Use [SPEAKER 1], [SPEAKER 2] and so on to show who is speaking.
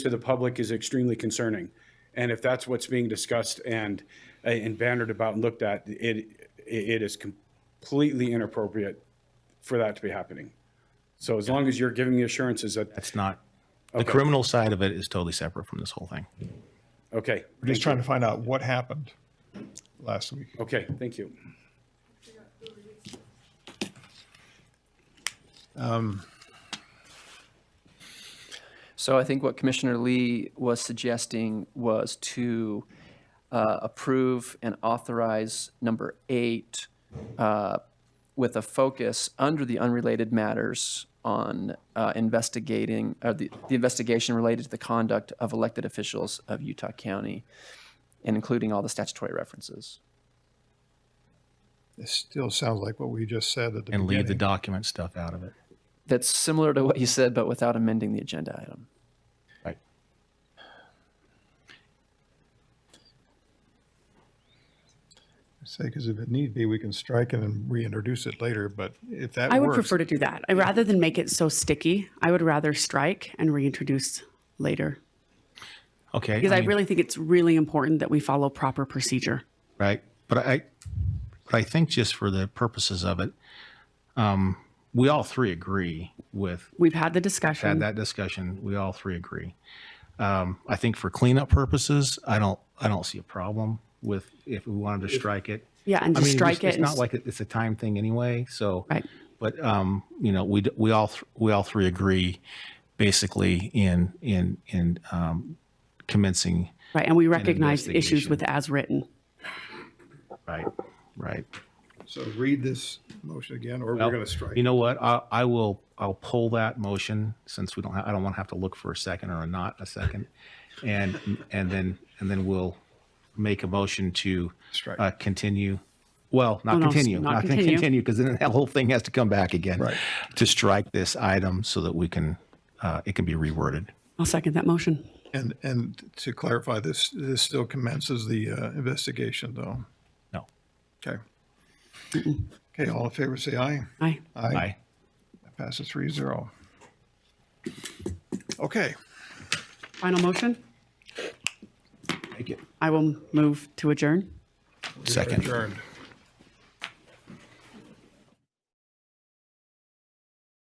[SPEAKER 1] to the public is extremely concerning. And if that's what's being discussed and, and bannered about and looked at, it, it is completely inappropriate for that to be happening. So as long as you're giving me assurances that,
[SPEAKER 2] It's not, the criminal side of it is totally separate from this whole thing.
[SPEAKER 1] okay,
[SPEAKER 3] We're just trying to find out what happened last week.
[SPEAKER 1] okay, thank you.
[SPEAKER 4] So I think what Commissioner Lee was suggesting was to uh, approve and authorize number eight uh, with a focus under the unrelated matters on uh, investigating, uh, the the investigation related to the conduct of elected officials of Utah County, and including all the statutory references.
[SPEAKER 3] It still sounds like what we just said at the
[SPEAKER 2] And leave the
[SPEAKER 3] beginning.
[SPEAKER 2] document stuff out of it.
[SPEAKER 4] That's similar to what you said, but without amending the agenda item.
[SPEAKER 2] Right.
[SPEAKER 3] Say, because if it need be, we can strike it and reintroduce it later, but if that
[SPEAKER 5] I would
[SPEAKER 3] works,
[SPEAKER 5] prefer to do that. I rather than make it so sticky, I would rather strike and reintroduce later.
[SPEAKER 2] Okay.
[SPEAKER 5] Because I
[SPEAKER 2] mean,
[SPEAKER 5] really think it's really important that we follow proper procedure.
[SPEAKER 2] Right. But I, but I think just for the purposes of it, um, we all three agree with
[SPEAKER 5] We've had the discussion.
[SPEAKER 2] had that discussion. We all three agree. Um, I think for cleanup purposes, I don't, I don't see a problem with if we wanted to strike it.
[SPEAKER 5] Yeah, and
[SPEAKER 2] I
[SPEAKER 5] just
[SPEAKER 2] mean,
[SPEAKER 5] strike
[SPEAKER 2] it's-
[SPEAKER 5] it
[SPEAKER 2] It's
[SPEAKER 5] and
[SPEAKER 2] not
[SPEAKER 5] s-
[SPEAKER 2] like it- it's a time thing anyway, so.
[SPEAKER 5] Right.
[SPEAKER 2] But, um, you know, we, d- we all, th- we all three agree basically in, in, in, um, commencing,
[SPEAKER 5] right. And we recognize issues
[SPEAKER 2] investigation.
[SPEAKER 5] with as written.
[SPEAKER 2] right, right.
[SPEAKER 3] so read this motion again, or we're going to strike.
[SPEAKER 2] You know what? I, I will, I'll pull that motion since we don't, ha- I don't want to have to look for a second or a not a second. And, and then, and then we'll make a motion to
[SPEAKER 3] Strike.
[SPEAKER 2] uh, continue. Well,
[SPEAKER 5] No,
[SPEAKER 2] not
[SPEAKER 5] no, s-
[SPEAKER 2] continue,
[SPEAKER 5] not
[SPEAKER 2] not
[SPEAKER 5] continue.
[SPEAKER 2] continue, because then that whole thing has to come back again.
[SPEAKER 3] Right.
[SPEAKER 2] To strike this item so that we can, uh, it can be reworded.
[SPEAKER 5] I'll second that motion.
[SPEAKER 3] And, and to clarify, this, this still commences the uh, investigation, though.
[SPEAKER 2] No.
[SPEAKER 3] Okay. Okay, all in favor, say aye.
[SPEAKER 5] Aye.
[SPEAKER 2] Aye.
[SPEAKER 3] Passes three zero. Okay,
[SPEAKER 5] Final motion.
[SPEAKER 2] Make it.
[SPEAKER 5] I will move to adjourn.
[SPEAKER 2] Second.
[SPEAKER 3] adjourned.